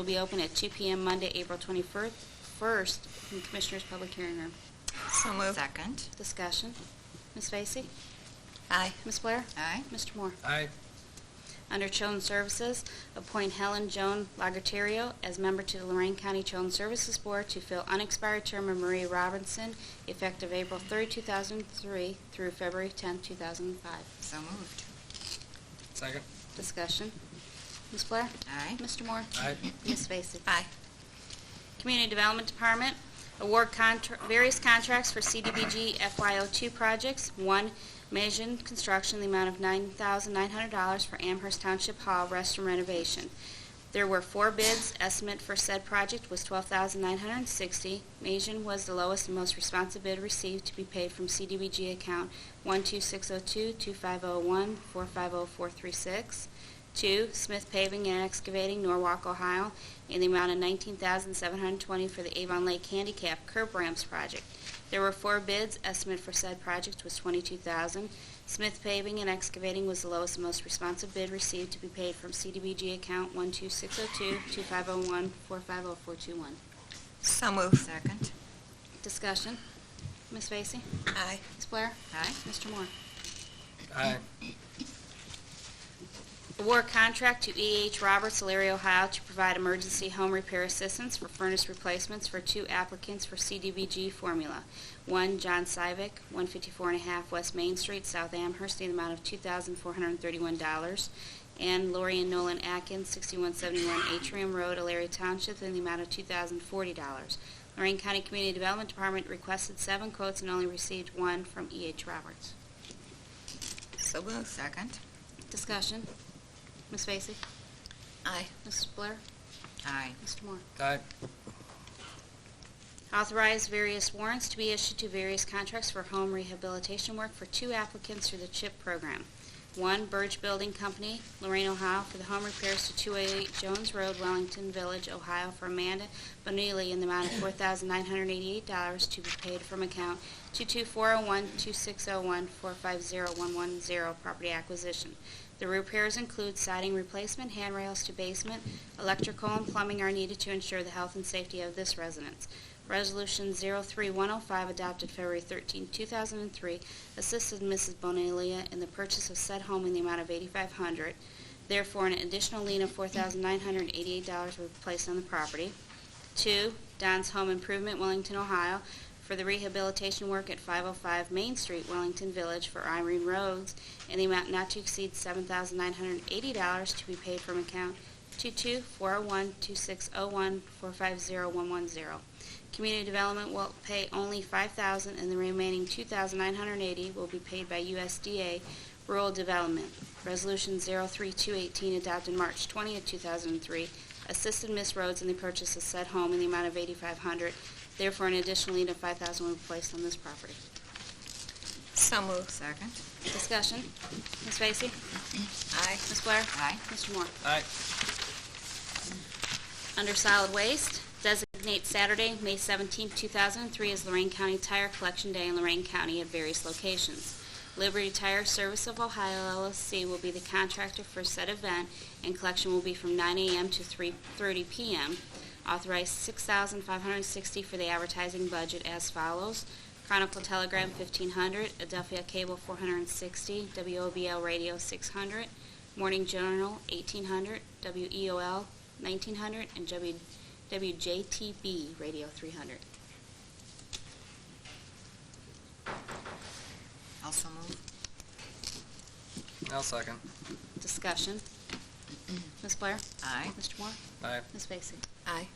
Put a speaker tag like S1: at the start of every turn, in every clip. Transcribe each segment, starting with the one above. S1: will be open at 2 PM Monday, April 21st, first in Commissioners' Public Hearing Room.
S2: So moved.
S3: Second.
S1: Discussion. Ms. Vacy?
S2: Aye.
S1: Ms. Blair?
S3: Aye.
S1: Mr. Moore?
S4: Aye.
S1: Under Children's Services, appoint Helen Joan Lagerterio as member to the Lorraine County Children's Services Board to fill unexpired term of Marie Robinson, effective April 3, 2003 through February 10, 2005.
S3: So moved.
S4: Second.
S1: Discussion. Ms. Blair?
S3: Aye.
S1: Mr. Moore?
S4: Aye.
S1: Ms. Vacy?
S2: Aye.
S1: Community Development Department, award contra- various contracts for CDBG FY02 projects. One, Mason Construction, the amount of $9,900 for Amherst Township Hall restroom renovation. There were four bids. Estimate for said project was $12,960. Mason was the lowest and most responsive bid received to be paid from CDBG account 12602-2501-450436. Two, Smith Paving and Excavating, Norwalk, Ohio, in the amount of $19,720 for the Avon Lake Handicap Curb Ramps Project. There were four bids. Estimate for said project was $22,000. Smith Paving and Excavating was the lowest and most responsive bid received to be paid from CDBG account 12602-2501-450421.
S2: So moved.
S3: Second.
S1: Discussion. Ms. Vacy?
S2: Aye.
S1: Ms. Blair?
S3: Aye.
S1: Mr. Moore?
S4: Aye.
S1: Award contract to E.H. Roberts, Alariah, Ohio to provide emergency home repair assistance for furnace replacements for two applicants for CDBG formula. One, John Syvick, 154 and a half West Main Street, South Amherst, in the amount of $2,431. And Lori and Nolan Atkins, 6171 Atrium Road, Alariah Township, in the amount of $2,040. Lorraine County Community Development Department requested seven quotes and only received one from E.H. Roberts.
S2: So moved.
S3: Second.
S1: Discussion. Ms. Vacy?
S2: Aye.
S1: Mrs. Blair?
S3: Aye.
S1: Mr. Moore?
S4: Aye.
S1: Authorize various warrants to be issued to various contracts for home rehabilitation work for two applicants through the CHIP program. One, Burge Building Company, Lorraine, Ohio, for the home repairs to 288 Jones Road, Wellington Village, Ohio, for Amanda Bonelli in the amount of $4,988 to be paid from account 22401-2601-450110, property acquisition. The repairs include siding replacement, handrails to basement, electrical and plumbing are needed to ensure the health and safety of this residence. Resolution 03105 adopted February 13, 2003, assisted Mrs. Bonelia in the purchase of said home in the amount of $8,500. Therefore, an additional lien of $4,988 will be placed on the property. Two, Don's Home Improvement, Wellington, Ohio, for the rehabilitation work at 505 Main Street, Wellington Village, for Irene Rhodes, in the amount not to exceed $7,980 to be paid from account 22401-2601-450110. Community Development will pay only $5,000, and the remaining $2,980 will be paid by USDA Rural Development. Resolution 03218 adopted March 20, 2003, assisted Miss Rhodes in the purchase of said home in the amount of $8,500. Therefore, an additional lien of $5,000 will be placed on this property.
S2: So moved.
S3: Second.
S1: Discussion. Ms. Vacy?
S2: Aye.
S1: Ms. Blair?
S3: Aye.
S1: Mr. Moore?
S4: Aye.
S1: Under solid waste, designate Saturday, May 17, 2003 as Lorraine County Tire Collection Day in Lorraine County at various locations. Liberty Tire Service of Ohio LLC will be the contractor for said event, and collection will be from 9 a.m. to 3:30 p.m. Authorized $6,560 for the advertising budget as follows. Chronicle Telegram 1500, Adelphia Cable 460, WOBL Radio 600, Morning Journal 1800, WEOL 1900, and W- WJTB Radio 300.
S3: Also moved.
S4: I'll second.
S1: Discussion. Ms. Blair?
S3: Aye.
S1: Mr. Moore?
S4: Aye.
S1: Ms. Vacy?
S2: Aye.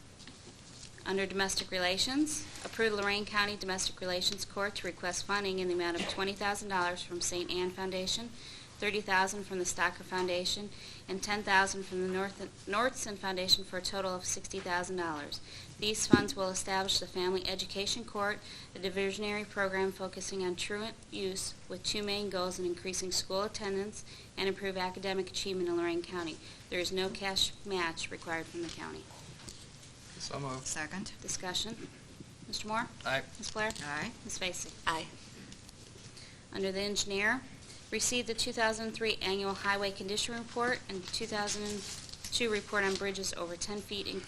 S1: Under Domestic Relations, approve Lorraine County Domestic Relations Court to request funding in the amount of $20,000 from St. Anne Foundation, $30,000 from the Stocker Foundation, and $10,000 from the North Nordson Foundation for a total of $60,000. These funds will establish the Family Education Court, a diversionary program focusing on truant use with two main goals in increasing school attendance and improve academic achievement in Lorraine County. There is no cash match required from the county.
S4: So moved.
S3: Second.
S1: Discussion. Mr. Moore?
S4: Aye.
S1: Ms. Blair?
S3: Aye.
S1: Ms. Vacy?
S2: Aye.
S1: Under the engineer, received the 2003 annual highway condition report and 2002 report on bridges over 10 feet, including